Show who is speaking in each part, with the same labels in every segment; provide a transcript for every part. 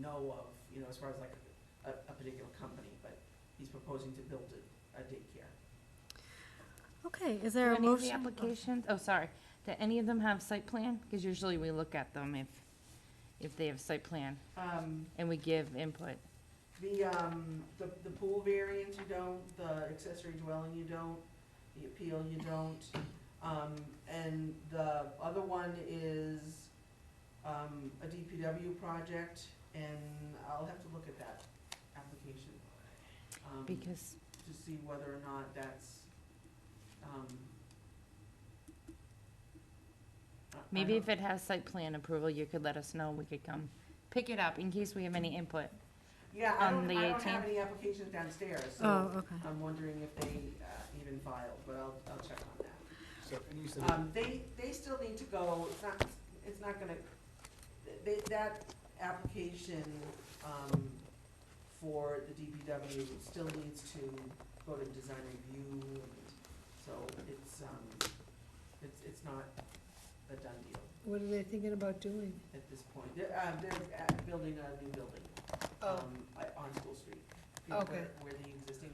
Speaker 1: know of, you know, as far as like a, a particular company, but he's proposing to build a, a daycare.
Speaker 2: Okay, is
Speaker 3: Do
Speaker 2: there a
Speaker 3: any of the
Speaker 2: motion?
Speaker 3: applications, oh, sorry, do any of them have site plan? Because usually we look at them if, if they have site plan,
Speaker 1: Um,
Speaker 3: and we give input.
Speaker 1: the, um, the, the pool variance you don't, the accessory dwelling you don't, the appeal you don't. Um, and the other one is, um, a DPW project, and I'll have to look at that application. um,
Speaker 3: Because,
Speaker 1: to see whether or not that's, um. I- I
Speaker 3: maybe
Speaker 1: don't-
Speaker 3: if it has site plan approval, you could let us know, we could come pick it up in case we have any input.
Speaker 1: Yeah, I
Speaker 3: on
Speaker 1: don't,
Speaker 3: the
Speaker 1: I don't have
Speaker 3: 18th.
Speaker 1: any applications downstairs,
Speaker 2: Oh,
Speaker 1: so
Speaker 2: okay.
Speaker 1: I'm wondering if they, uh, even filed, but I'll, I'll check on that.
Speaker 4: So, and you said,
Speaker 1: Um, they, they still need to go, it's not, it's not gonna, they, that application, um, for the DPW still needs to go to design review, and so it's, um, it's, it's not a done deal.
Speaker 5: What are they thinking about doing?
Speaker 1: at this point. They're, uh, they're at building a new building, um, at- on School Street. you know,
Speaker 5: Oh. Okay.
Speaker 1: where- Where the existing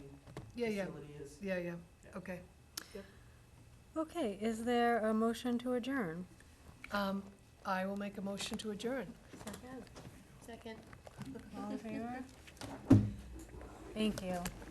Speaker 5: Yeah, yeah,
Speaker 1: facility is.
Speaker 5: yeah, yeah, okay.
Speaker 2: Okay, is there a motion to adjourn?
Speaker 5: Um, I will make a motion to adjourn.
Speaker 2: Second. All in favor? Thank you.